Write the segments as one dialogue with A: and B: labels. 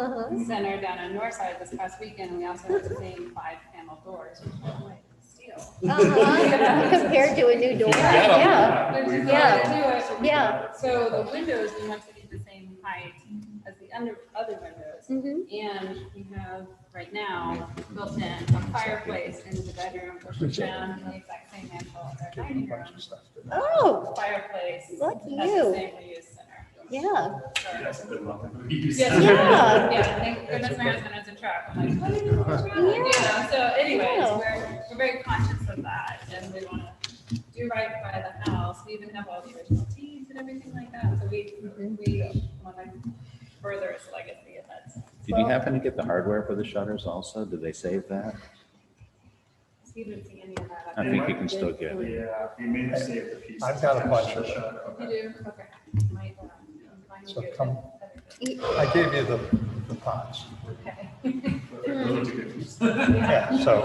A: Uh-huh.
B: center down on north side this past weekend, we also had the same five panel doors, which were like steel.
A: Uh-huh. Compared to a new door, yeah,
B: There's
C: We've
B: just
A: got
B: a way to do it.
A: yeah.
B: So the windows, we want to be the same height as the under, other windows.
A: Mhm.
B: And we have right now built in a fireplace into the bedroom, which is down in the exact same mantle as our dining room.
A: Oh,
B: Fireplace.
A: Lucky
B: has
A: you.
B: the same reuse center.
A: yeah,
B: So-
C: Yes.
A: Yeah.
B: Yeah, thank goodness my husband has a truck. I'm like, what are you doing? Yeah, so anyways,
A: Yeah.
B: we're, we're very conscious of that and we wanna do right by the house. We even have all the original teas and everything like that, so we, we wanna further its legacy if that's.
D: Did you happen to get the hardware for the shutters also? Did they save that?
B: We didn't see any of that.
D: I think you can still get it.
C: Yeah, we may have saved the piece.
E: I've got a bunch of
B: You
C: them.
B: do, okay. Might, um, might
E: So
B: do.
E: come- I gave you the, the pots.
B: Okay.
C: Those are good pieces.
E: Yeah, so,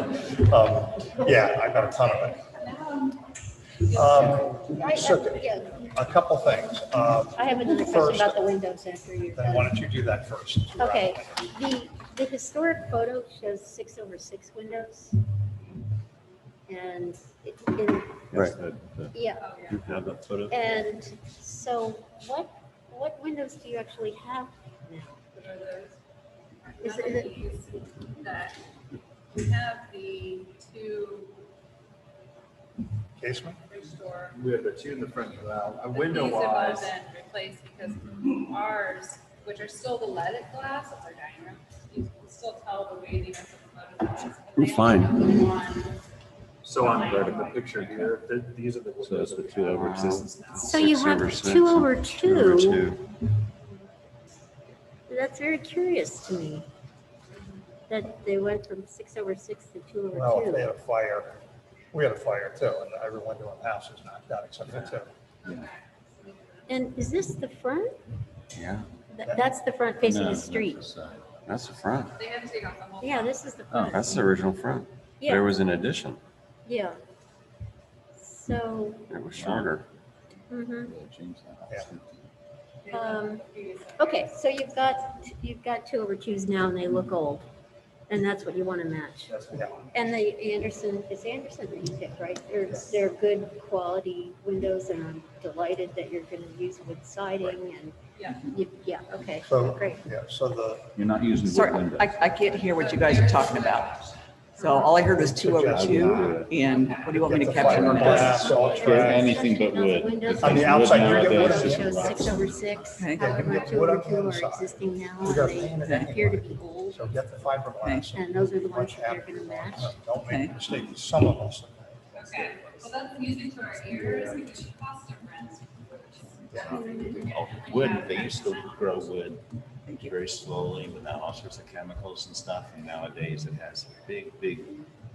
E: um, yeah, I've got a ton of it.
B: Now, um,
E: Um,
A: right,
E: So-
A: that's- yeah.
E: a couple things. Um,
A: I have another question
E: First-
A: about the windows after you're
E: Then
A: done.
E: why don't you do that first?
A: Okay, the, the historic photo shows six over six windows. And, it- in
D: Right.
A: yeah,
B: oh, yeah.
A: and so what, what windows do you actually have now? Is
B: Is
A: it- is it-
B: That we have the two
E: Casement?
B: restore.
C: We have the two in the front, well, a
B: the
C: window
B: piece above
C: wise.
B: and Replaced because ours, which are still the leaded glass of our dining room, you can still tell the weightiness of the photos.
D: Ooh, fine.
C: So on the picture here, th- these are the.
D: So that's the two over six.
A: So you
D: Six
A: have
D: over six
A: two
D: and
A: over
D: Two over
A: two.
D: two.
A: That's very curious to me. That they went from six over six to two
E: No,
A: over
E: they had
A: two.
E: a fire. We had a fire too, and every window in the house was knocked out except for two.
A: And is this the front?
D: Yeah.
A: Th- That's the front facing the street.
D: uh, That's the front.
B: They had to take off the whole.
A: Yeah, this is the
D: Oh,
A: front.
D: that's the original front. There
A: Yeah,
D: was an addition.
A: yeah. So,
D: It was shorter.
A: mhm.
E: Yeah.
A: um,
B: piece.
A: okay, so you've got, you've got two over twos now and they look old. And that's what you want to match.
E: Yeah,
A: And the Anderson, it's Anderson that you picked, right? They're, they're good quality windows and I'm delighted that you're going to use wood siding and,
B: Yeah.
A: you- yeah, okay,
E: So-
A: great.
E: yeah, so the,
D: You're not using
F: Sorry, I, I can't hear what you guys are talking about. So all I heard was two over two, and what do you want me to capture on this?
E: fiberglass, all trash.
G: Anything but wood.
A: Windows
E: On the outside, you're getting wood
A: nowadays
E: on the
A: shows
E: inside.
A: Six over six,
F: Okay.
A: however much
E: Wood
A: over
E: on the
A: two are
E: inside.
A: existing now
E: We
A: and
E: got
A: they
E: painted
A: appear to
E: anyway.
A: be old.
E: So get the fiberglass.
A: And those are the ones
E: Much
A: that they're
E: happier.
A: gonna match.
E: Don't make
F: Okay.
E: a mistake, some of us.
B: Okay, well, that's music to our ears because she cost her rents.
G: Wood, they used to grow wood
F: Thank you.
G: very slowly without all sorts of chemicals and stuff. And nowadays it has big, big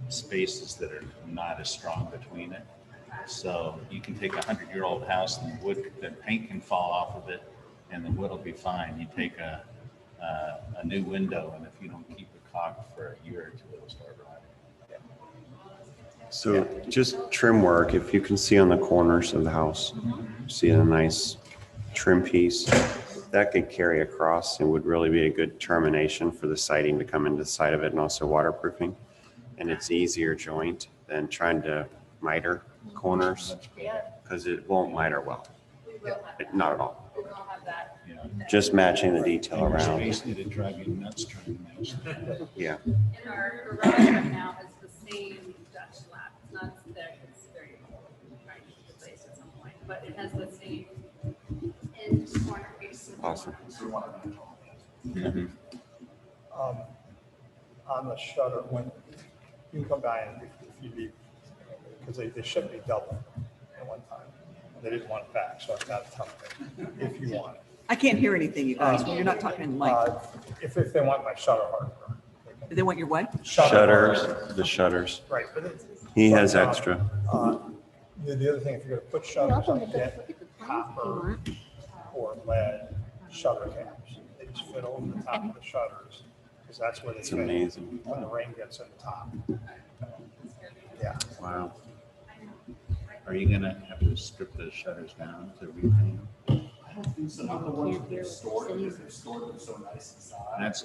G: spaces that are not as strong between it. So you can take a hundred year old house and the wood, the paint can fall off of it and the wood will be fine. You take a, a, a new window and if you don't keep it caulked for a year or two, it'll start rotting.
D: So just trim work, if you can see on the corners of the house, see a nice trim piece, that could carry across and would really be a good termination for the siding to come into the side of it and also waterproofing. And it's easier joint than trying to miter corners because it won't miter well,
B: We will have that,
D: not at all.
B: we will have that.
G: Yeah.
D: Just matching the detail
G: And
D: around,
G: Space it'd drive you nuts trying to match that.
D: yeah.
B: In our garage right now is the same Dutch lap, it's not there, it's very old, trying to replace at some point, but it has the same end corner piece. with the
D: Awesome.
B: corner.
E: um, on the shutter, when you can come by and if if you need, because they, they shipped me double at one time. They didn't want it back, so I've got a ton of it, if you want it.
F: I can't hear anything, you guys, when you're not talking in light.
E: Uh, If, if they want my shutter hardware. they can-
F: They want your what?
E: hardware,
D: Shutters, the shutters.
E: Right, but it's.
D: He
E: but,
D: has
E: um,
D: extra.
E: uh, The, the other thing, if you're gonna put
A: You're
E: shutters
A: welcome
E: on,
A: to go
E: get
A: look at the plans if you
E: copper
A: want.
E: or lead shutter caps. They just fit over the top of the shutters, because that's where they.
D: It's
E: fit
D: amazing.
E: When the rain gets in the top. Yeah.
D: Wow.
G: Are you gonna have to strip those shutters down to repaint them?
C: Not the ones that they stored, because they stored them so nice inside.
G: That's